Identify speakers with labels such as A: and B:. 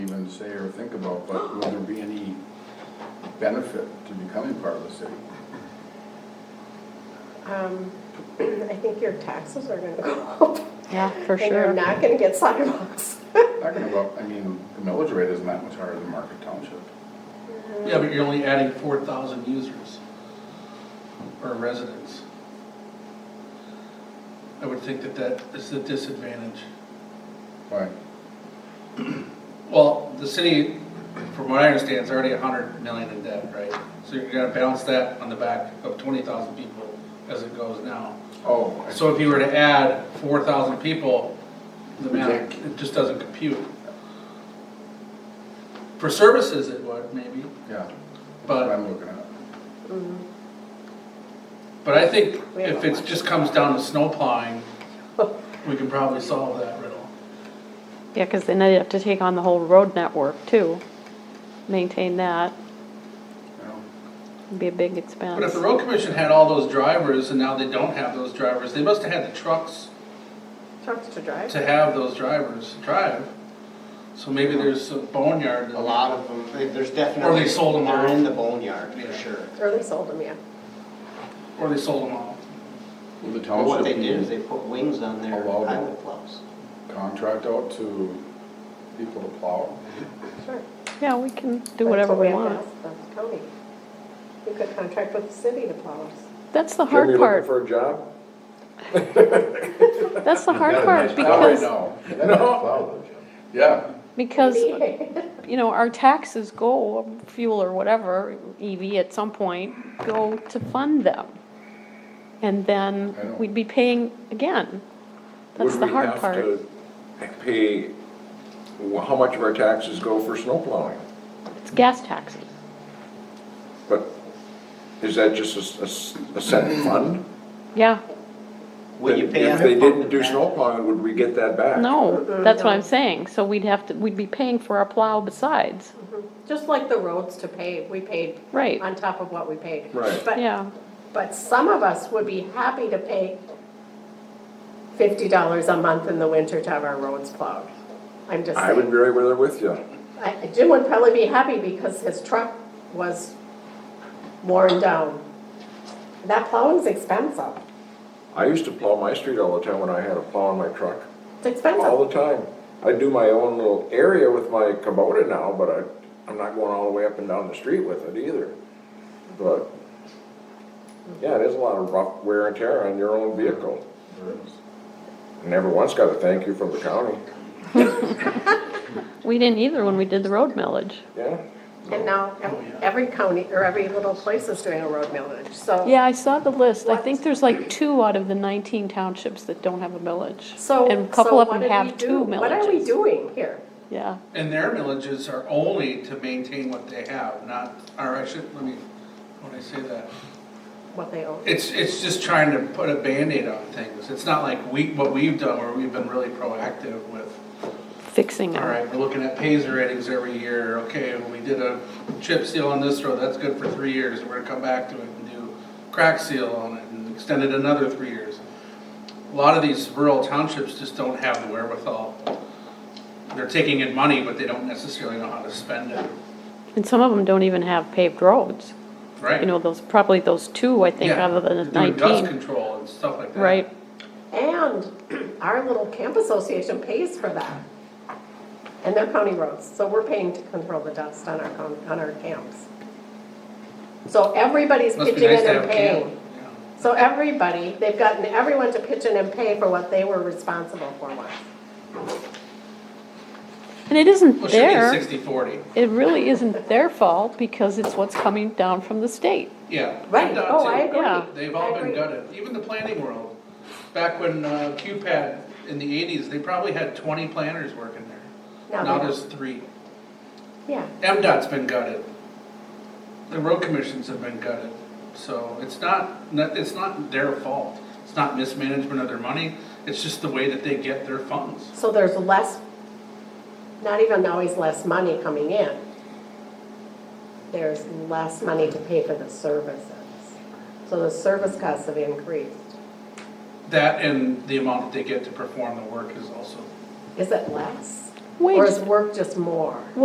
A: say or think about, but will there be any benefit to becoming part of the city?
B: Um, I think your taxes are gonna go up.
C: Yeah, for
B: And you're
C: sure.
B: not gonna get sidewalks.
A: Talking about, I mean, the millage rate isn't that much higher than Market Township.
D: Yeah, but you're only adding four thousand users or residents. I would think that that is a disadvantage.
A: Why?
D: Well, the city, from what I understand, is already a hundred million in debt, right? So you're gonna balance that on the back of twenty thousand people as it goes now.
A: Oh, I-
D: So if you were to add four thousand people, the
A: We
D: math,
A: can't-
D: it just doesn't compute. For services, it would maybe,
A: yeah, that's what
D: but,
A: I'm looking at.
D: but I think
B: We have
D: if
B: a
D: it
B: lot.
D: just comes down to snow plowing, we can probably solve that riddle.
C: Yeah, because then they'd have to take on the whole road network too. Maintain that,
A: you know?
C: would be a big expense.
D: But if the road commission had all those drivers and now they don't have those drivers, they must have had the trucks
B: Trucks to drive.
D: to have those drivers drive. So maybe there's a boneyard.
E: A lot of them, they- there's definitely.
D: Or they sold 'em
E: They're
D: off.
E: in the boneyard,
D: Yeah.
E: for sure.
B: Or they sold them, yeah.
D: Or they sold them all.
A: Will the
E: But what they
A: township
E: did is
A: be
E: they put wings on their
A: Allowed it.
E: highway plows.
A: contract out to people to plow?
B: Sure.
C: Yeah, we can
B: That's
C: do whatever
B: what
C: we
B: have to
C: want.
B: ask the County. You could contract with the city to plow us.
C: That's the
F: Jimmy
C: hard
F: looking
C: part.
F: For a job?
C: That's the hard
G: Not a
C: part
G: nice job right
C: because,
A: No,
G: No.
A: yeah,
C: because,
B: Maybe.
C: you know, our taxes go, fuel or whatever, EV at some point, go to fund them. And
A: I know.
C: then we'd be paying again. That's the hard part.
G: Would we have to pay, wh- how much of our taxes go for snow plowing?
C: It's gas taxes.
G: But is that just a s- a, s- a set
C: Mm.
G: fund?
C: Yeah,
E: Would you pay
G: If
E: on
G: they
E: the pump
G: didn't
E: and
G: do
E: back?
G: snow plowing, would we get that back?
C: no, that's what I'm
B: No.
C: saying. So we'd have to, we'd be paying for our plow besides.
B: Just like the roads to pave, we paid.
C: Right.
B: On top of what we paid.
G: Right.
B: But-
C: Yeah,
B: But some of us would be happy to pay fifty dollars a month in the winter to have our roads plowed. I'm just
G: I would
B: saying.
G: be right there with you.
B: I- Jim would probably be happy because his truck was worn down. That plowing's expensive.
G: I used to plow my street all the time when I had a plow in my truck,
B: It's expensive.
D: Oh.
G: all the time. I do my own little area with my Kubota now, but I, I'm not going all the way up and down the street with it either. But, yeah, it is a lot of rough wear and tear on your own vehicle.
A: there is.
G: And Never once got a thank you from the county,
C: we didn't either when we did the road millage.
G: yeah?
B: And now
D: Oh,
B: ev- every county or every little place is doing a road millage, so.
C: Yeah, I saw the list. I
B: What?
C: think there's like two out of the nineteen townships that don't have a millage.
B: So.
C: And a
B: so
C: couple of
B: what
C: them
B: did we
C: have
B: do?
C: two
B: What are we
C: millages.
B: doing here?
C: Yeah,
D: And their millages are only to maintain what they have, not, or I should, let me, when I say that.
B: What they own?
D: It's, it's just trying to put a Band-Aid on things. It's not like we, what we've done where we've been really proactive with,
C: fixing
D: all
C: them.
D: right, we're looking at Pazer ratings every year. Okay, we did a chip seal on this road, that's good for three years. We're gonna come back to it and do crack seal on it and extend it another three years. A lot of these rural townships just don't have the wherewithal. They're taking in money, but they don't necessarily know how to spend it,
C: And some of them don't even have paved roads.
D: right?
C: You know, those, probably those two, I think,
D: Yeah,
C: out of the
D: Doing dust
C: nineteen,
D: control and stuff like that.
C: right?
B: And our little camp association pays for that. And they're county roads, so we're paying to control the dust on our, coun- on our camps. So everybody's
D: Must be
B: pitching
D: nice
B: in
D: to have
B: and
D: a
B: paying.
D: camp. Yeah.
B: So everybody, they've gotten everyone to pitch in and pay for what they were responsible for once.
C: And it isn't
D: Well, it should be
C: there,
D: sixty forty,
C: it really isn't their fault because it's what's coming down from the state.
D: yeah.
B: Right,
D: PennDOT
B: oh,
D: too.
B: I
C: Yeah.
B: agree.
D: They've
B: I
D: all been
B: agree.
D: gutted, even the planning world, back when uh, QPAD in the eighties, they probably had twenty planners working
B: Now
D: there.
B: they
D: Now
B: don't.
D: there's three.
B: Yeah,
D: MDOT's been gutted. The road commissions have been gutted, so it's not, not- it's not their fault. It's not mismanagement of their money, it's just the way that they get their funds.
B: so there's less, not even always less money coming in. There's less money to pay for the services. So the service costs have increased.
D: That and the amount that they get to perform the work is also
B: Is it less?
C: Wait.
B: Or is work just more?